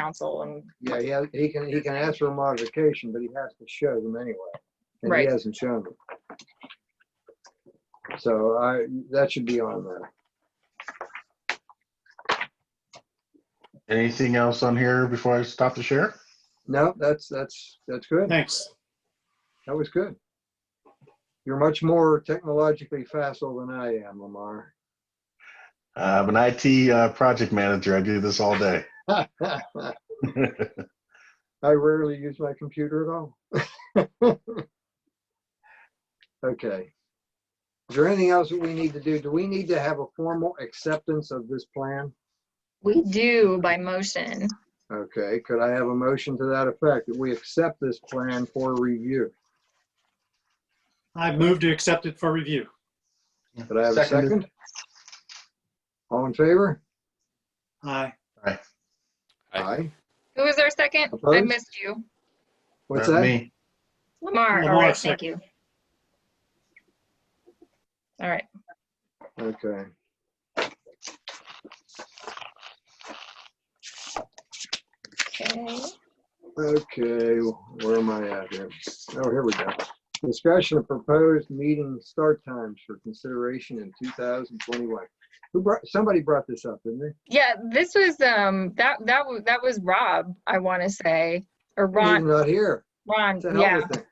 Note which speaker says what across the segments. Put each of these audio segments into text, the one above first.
Speaker 1: council and
Speaker 2: Yeah, yeah, he can, he can ask for a modification, but he has to show them anyway. And he
Speaker 1: Right.
Speaker 2: hasn't shown them. So I, that should be on there.
Speaker 3: Anything else on here before I stop the share?
Speaker 2: No, that's, that's, that's good.
Speaker 4: Thanks.
Speaker 2: That was good. You're much more technologically facile than I am, Lamar.
Speaker 3: I'm an IT uh, project manager. I do this all day.
Speaker 2: I rarely use my computer at all. Okay. Is there anything else that we need to do? Do we need to have a formal acceptance of this plan?
Speaker 1: we do by motion.
Speaker 2: Okay, could I have a motion to that effect, that we accept this plan for review?
Speaker 4: I've moved to accept it for review.
Speaker 2: Could I have a
Speaker 3: Seconded.
Speaker 2: second? All in favor?
Speaker 4: Aye.
Speaker 5: Aye.
Speaker 1: Who was our second? I
Speaker 2: Opposed?
Speaker 1: missed you.
Speaker 2: What's
Speaker 3: Not
Speaker 2: that?
Speaker 3: Uh, me.
Speaker 1: Lamar, all
Speaker 4: Lamar,
Speaker 1: right, thank you. All right,
Speaker 2: Okay.
Speaker 1: okay.
Speaker 2: Okay, where am I at here? Oh, here we go. Discussion of proposed meeting start times for consideration in 2021. Who brought, somebody brought this up, didn't they?
Speaker 1: Yeah, this was, um, that, that was, that was Rob, I want to say, or
Speaker 2: He's
Speaker 1: Ron,
Speaker 2: not here.
Speaker 1: Ron,
Speaker 2: It's a hell
Speaker 1: yeah.
Speaker 2: of a thing.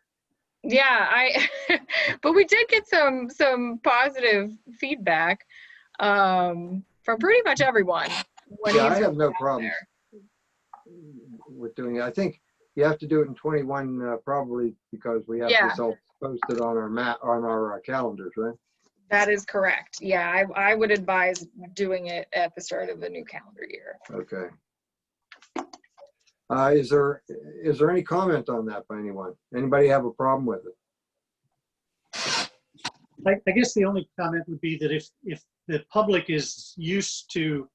Speaker 1: Yeah, I but we did get some some positive feedback um from pretty much everyone. when
Speaker 2: Yeah,
Speaker 1: he's
Speaker 2: I have no
Speaker 1: out
Speaker 2: problems
Speaker 1: there.
Speaker 2: with doing it. I think you have to do it in 21 uh, probably because we have
Speaker 1: Yeah.
Speaker 2: this all posted on our map, on our uh, calendars, right?
Speaker 1: That is correct. Yeah, I I would advise doing it at the start of the new calendar year.
Speaker 2: Okay. Uh, is there, is there any comment on that by anyone? Anybody have a problem with it?
Speaker 4: I, I guess the only comment would be that if, if the public is used to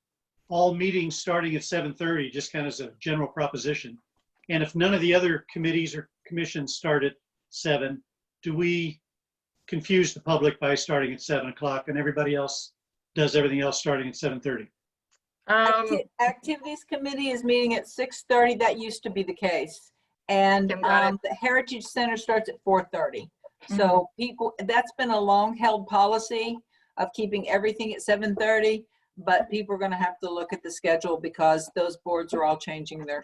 Speaker 4: all meetings starting at 7:30, just kind of as a general proposition, and if none of the other committees or commissions start at 7, do we confuse the public by starting at 7 o'clock and everybody else does everything else starting at 7:30?
Speaker 1: Um
Speaker 6: Acti- Activities Committee is meeting at 6:30. That used to be the case. And
Speaker 1: Kim got it.
Speaker 6: um, the Heritage Center starts at 4:30. So
Speaker 1: Mm-hmm.
Speaker 6: people, that's been a long-held policy of keeping everything at 7:30. But people are going to have to look at the schedule because those boards are all changing their,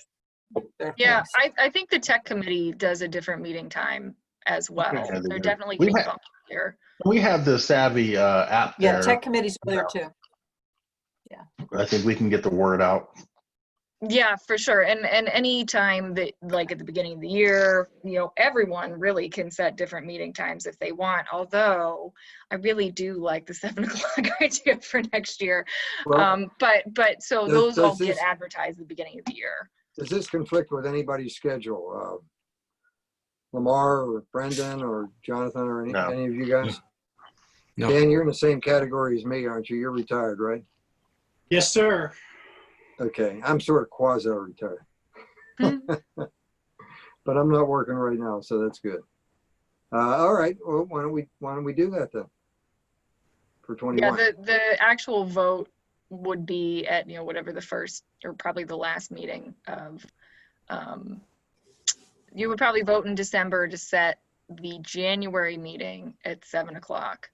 Speaker 6: their
Speaker 1: yeah,
Speaker 6: things.
Speaker 1: I I think the tech committee does a different meeting time as well.
Speaker 3: Okay, they
Speaker 1: They're
Speaker 3: do.
Speaker 1: definitely
Speaker 3: We
Speaker 1: being
Speaker 3: ha-
Speaker 1: bumped here.
Speaker 3: We have the Savvy uh, app
Speaker 6: Yeah,
Speaker 3: there.
Speaker 6: tech committees are there too.
Speaker 3: I think we can get the word out.
Speaker 1: Yeah, for sure. And and any time that like at the beginning of the year, you know, everyone really can set different meeting times if they want. Although I really do like the seven o'clock idea for next year.
Speaker 2: Well,
Speaker 1: um, but but so
Speaker 2: does-
Speaker 1: those all
Speaker 2: does
Speaker 1: get
Speaker 2: this-
Speaker 1: advertised at the beginning of the year.
Speaker 2: Does this conflict with anybody's schedule? Uh, Lamar or Brendan or Jonathan or any,
Speaker 3: No.
Speaker 2: any of you guys?
Speaker 5: No.
Speaker 2: Dan, you're in the same category as me, aren't you? You're retired, right?
Speaker 4: Yes, sir.
Speaker 2: Okay, I'm sort of quasi-retired.
Speaker 1: Hmm.
Speaker 2: But I'm not working right now, so that's good. Uh, all right, well, why don't we, why don't we do that then? For
Speaker 1: Yeah,
Speaker 2: twenty-one,
Speaker 1: the the actual vote would be at you know whatever the first or probably the last meeting of. Um, you would probably vote in December to set the January meeting at seven o'clock,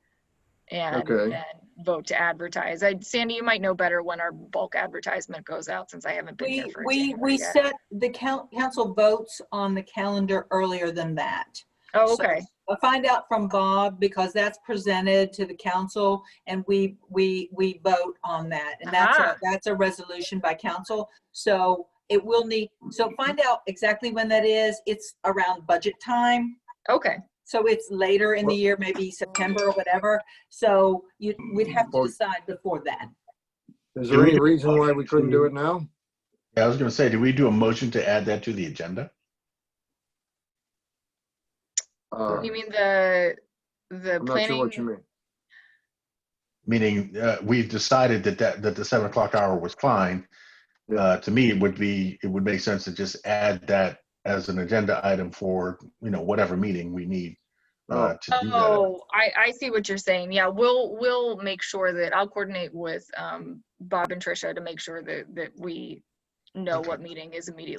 Speaker 1: and
Speaker 2: Okay.
Speaker 1: then vote to advertise. I, Sandy, you might know better when our bulk advertisement goes out since I haven't been here
Speaker 6: We,
Speaker 1: for
Speaker 6: we,
Speaker 1: January
Speaker 6: we
Speaker 1: yet.
Speaker 6: set, the coun- council votes on the calendar earlier than that.
Speaker 1: Oh,
Speaker 6: so-
Speaker 1: okay.
Speaker 6: I'll find out from Bob because that's presented to the council and we, we, we vote on that. And that's,
Speaker 1: Ah.
Speaker 6: a- that's a resolution by council. So it will need, so find out exactly when that is. It's around budget time.
Speaker 1: Okay.
Speaker 6: So it's later in the year, maybe September or whatever. So you, we'd have to
Speaker 2: Or-
Speaker 6: decide before that.
Speaker 2: is there any reason why we couldn't do it now?
Speaker 3: Yeah, I was going to say, do we do a motion to add that to the agenda?
Speaker 2: Uh,
Speaker 1: You mean the the
Speaker 2: I'm not sure
Speaker 1: planning?
Speaker 2: what you mean.
Speaker 3: Meaning, uh, we've decided that that, that the seven o'clock hour was fine. Uh, to me, it would be, it would make sense to just add that as an agenda item for, you know, whatever meeting we need uh, to do that.
Speaker 1: Oh, I, I see what you're saying. Yeah, we'll, we'll make sure that, I'll coordinate with um, Bob and Tricia to make sure that, that we know
Speaker 3: Okay.
Speaker 1: what meeting is immediately